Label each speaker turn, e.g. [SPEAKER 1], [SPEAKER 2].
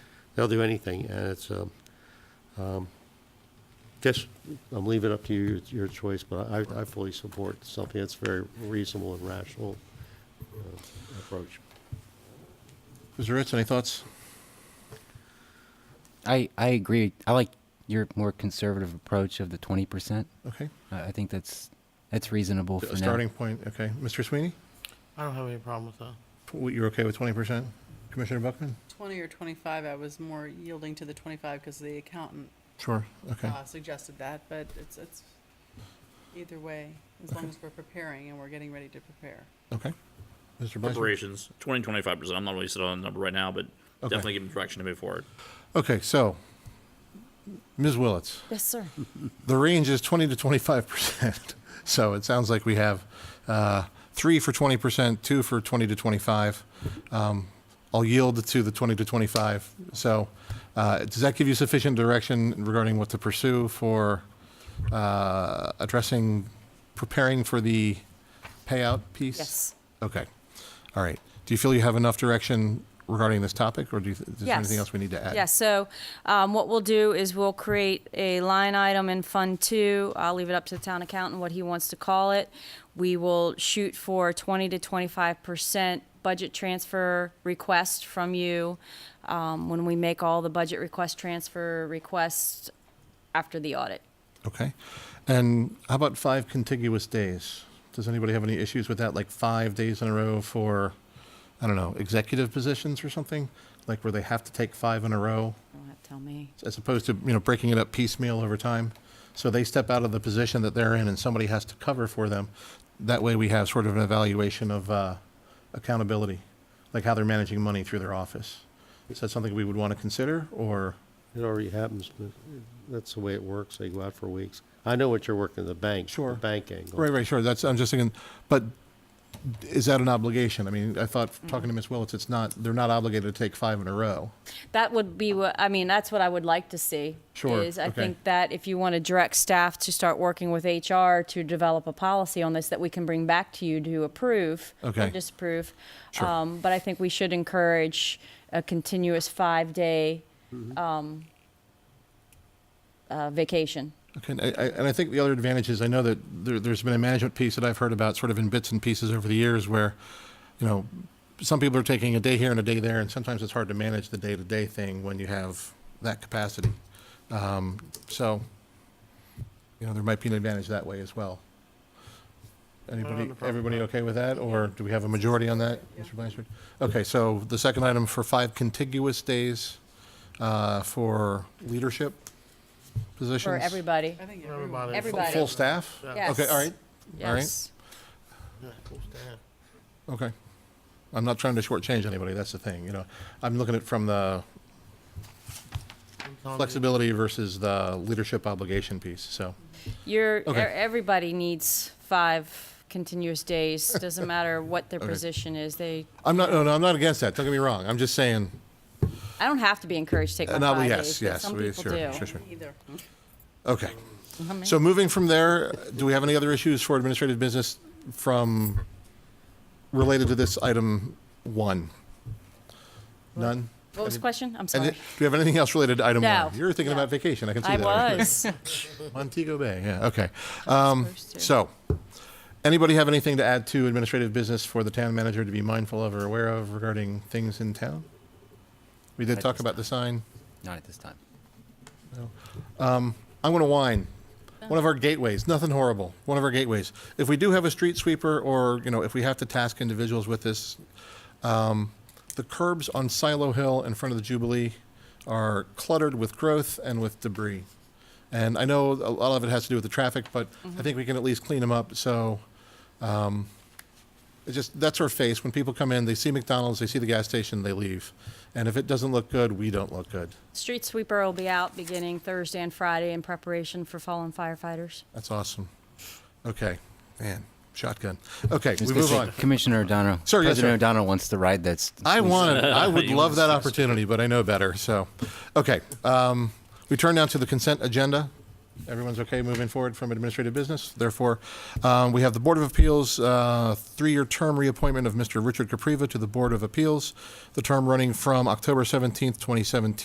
[SPEAKER 1] they'll do anything, and it's, um, um, just, I'm leaving it up to you, it's your choice, but I, I fully support something that's very reasonable and rational uh, approach.
[SPEAKER 2] Mr. Ritz, any thoughts?
[SPEAKER 3] I, I agree. I like your more conservative approach of the 20%.
[SPEAKER 2] Okay.
[SPEAKER 3] I, I think that's that's reasonable for
[SPEAKER 2] A starting point, okay. Mr. Sweeney,
[SPEAKER 4] I don't have any problem with that.
[SPEAKER 2] w- you're okay with 20%? Commissioner Buckman?
[SPEAKER 5] 20 or 25, I was more yielding to the 25 because the accountant
[SPEAKER 2] Sure, okay.
[SPEAKER 5] uh, suggested that, but it's, it's either way, as long as we're preparing and we're getting ready to prepare.
[SPEAKER 2] Okay. Mr. Blaser?
[SPEAKER 6] Preparations, 20, 25%. I'm not really set on a number right now, but
[SPEAKER 2] Okay.
[SPEAKER 6] definitely give them direction to move forward.
[SPEAKER 2] Okay, so, Ms. Willetts,
[SPEAKER 7] Yes, sir.
[SPEAKER 2] the range is 20 to 25%. So it sounds like we have uh, three for 20%, two for 20 to 25. Um, I'll yield to the 20 to 25. So uh, does that give you sufficient direction regarding what to pursue for uh, addressing, preparing for the payout piece?
[SPEAKER 7] Yes.
[SPEAKER 2] Okay. All right. Do you feel you have enough direction regarding this topic, or do you, is there anything
[SPEAKER 7] Yes.
[SPEAKER 2] else we need to add?
[SPEAKER 7] Yeah, so um, what we'll do is we'll create a line item in Fund Two. I'll leave it up to the town accountant what he wants to call it. We will shoot for twenty to twenty-five percent budget transfer request from you um, when we make all the budget request transfer requests after the audit.
[SPEAKER 2] Okay. And how about five contiguous days? Does anybody have any issues with that? Like five days in a row for, I don't know, executive positions or something? Like where they have to take five in a row
[SPEAKER 7] You Don't have to tell me.
[SPEAKER 2] as opposed to, you know, breaking it up piecemeal over time? So they step out of the position that they're in and somebody has to cover for them. That way we have sort of an evaluation of uh, accountability, like how they're managing money through their office. Is that something we would want to consider or?
[SPEAKER 1] It already happens, but that's the way it works, they go out for weeks. I know what you're working, the bank.
[SPEAKER 2] Sure.
[SPEAKER 1] The bank angle.
[SPEAKER 2] Right, right, sure. That's, I'm just thinking, but is that an obligation? I mean, I thought, talking to Ms. Willetts, it's not, they're not obligated to take five in a row.
[SPEAKER 7] That would be what, I mean, that's what I would like to see.
[SPEAKER 2] Sure,
[SPEAKER 7] Is I
[SPEAKER 2] okay.
[SPEAKER 7] think that if you want to direct staff to start working with HR to develop a policy on this that we can bring back to you to approve
[SPEAKER 2] Okay.
[SPEAKER 7] or disapprove.
[SPEAKER 2] Sure.
[SPEAKER 7] Um, but I think we should encourage a continuous five-day,
[SPEAKER 2] Mm-hmm.
[SPEAKER 7] um, uh, vacation.
[SPEAKER 2] Okay, and I, I- and I think the other advantage is, I know that there, there's been a management piece that I've heard about sort of in bits and pieces over the years where, you know, some people are taking a day here and a day there, and sometimes it's hard to manage the day-to-day thing when you have that capacity. Um, So, you know, there might be an advantage that way as well.
[SPEAKER 4] have a
[SPEAKER 2] Anybody,
[SPEAKER 4] problem with
[SPEAKER 2] everybody
[SPEAKER 4] that.
[SPEAKER 2] okay with that, or do we have a majority on that, Mr. Blanchard? Okay, so the second item for five contiguous days uh, for leadership positions?
[SPEAKER 7] For everybody,
[SPEAKER 5] I think everyone,
[SPEAKER 4] Everybody.
[SPEAKER 2] Fu-
[SPEAKER 7] Everybody.
[SPEAKER 2] Full staff?
[SPEAKER 4] Yeah.
[SPEAKER 2] Okay, all right, all right,
[SPEAKER 7] yes.
[SPEAKER 4] Yeah, full staff.
[SPEAKER 2] okay. I'm not trying to shortchange anybody, that's the thing, you know. I'm looking at from the
[SPEAKER 4] I'm telling you,
[SPEAKER 2] flexibility versus the leadership obligation piece, so.
[SPEAKER 7] Your, e-
[SPEAKER 2] Okay.
[SPEAKER 7] everybody needs five continuous days, doesn't matter what their
[SPEAKER 2] Okay.
[SPEAKER 7] position is, they,
[SPEAKER 2] I'm not, no, no, I'm not against that, don't get me wrong, I'm just saying,
[SPEAKER 7] I don't have to be encouraged to take
[SPEAKER 2] Uh,
[SPEAKER 7] my
[SPEAKER 2] no,
[SPEAKER 7] five
[SPEAKER 2] yes,
[SPEAKER 7] days, but
[SPEAKER 2] yes,
[SPEAKER 7] some
[SPEAKER 2] we-
[SPEAKER 7] people
[SPEAKER 2] sure,
[SPEAKER 7] do.
[SPEAKER 2] sure, sure.
[SPEAKER 5] either.
[SPEAKER 2] okay.
[SPEAKER 7] I mean,
[SPEAKER 2] So moving from there, do we have any other issues for administrative business from, related to this item one? None?
[SPEAKER 7] what was the question? I'm
[SPEAKER 2] And
[SPEAKER 7] sorry.
[SPEAKER 2] then- do we have anything else related to item
[SPEAKER 7] No.
[SPEAKER 2] one? You were thinking
[SPEAKER 7] No.
[SPEAKER 2] about vacation, I can see
[SPEAKER 7] I
[SPEAKER 2] that.
[SPEAKER 7] was.
[SPEAKER 2] Montego Bay, yeah, okay. Um,
[SPEAKER 7] supposed to.
[SPEAKER 2] so, anybody have anything to add to administrative business for the town manager to be mindful of or aware of regarding things in town? We did
[SPEAKER 3] At
[SPEAKER 2] talk
[SPEAKER 3] this
[SPEAKER 2] about the sign.
[SPEAKER 3] Not at this time.
[SPEAKER 2] I'm going to whine. One of our gateways, nothing horrible. One of our gateways. If we do have a street sweeper, or you know, if we have to task individuals with this, um, the curbs on Silo Hill in front of the Jubilee are cluttered with growth and with debris. And I know a lot of it has to do with the traffic, but I think we can at least clean them up. So. It's just, that's our face. When people come in, they see McDonald's, they see the gas station, they leave. And if it doesn't look good, we don't look good.
[SPEAKER 7] Street sweeper will be out beginning Thursday and Friday in preparation for fallen firefighters.
[SPEAKER 2] That's awesome. Okay, man, shotgun. Okay,
[SPEAKER 3] Just
[SPEAKER 2] we
[SPEAKER 3] gonna
[SPEAKER 2] move
[SPEAKER 3] say,
[SPEAKER 2] on.
[SPEAKER 3] Commissioner O'Donnell.
[SPEAKER 2] Sir, yes,
[SPEAKER 3] President
[SPEAKER 2] sir.
[SPEAKER 3] O'Donnell wants to ride that's.
[SPEAKER 2] I wanted, I would
[SPEAKER 6] You
[SPEAKER 2] love
[SPEAKER 6] wanted
[SPEAKER 2] that
[SPEAKER 6] to-
[SPEAKER 2] opportunity, but I know better, so. Okay, um, we turn now to the consent agenda. Everyone's okay moving forward from administrative business? Therefore, um, we have the Board of Appeals, uh, three-year term reappointment of Mr. Richard Capriva to the Board of Appeals, the term running from October 17th, 2017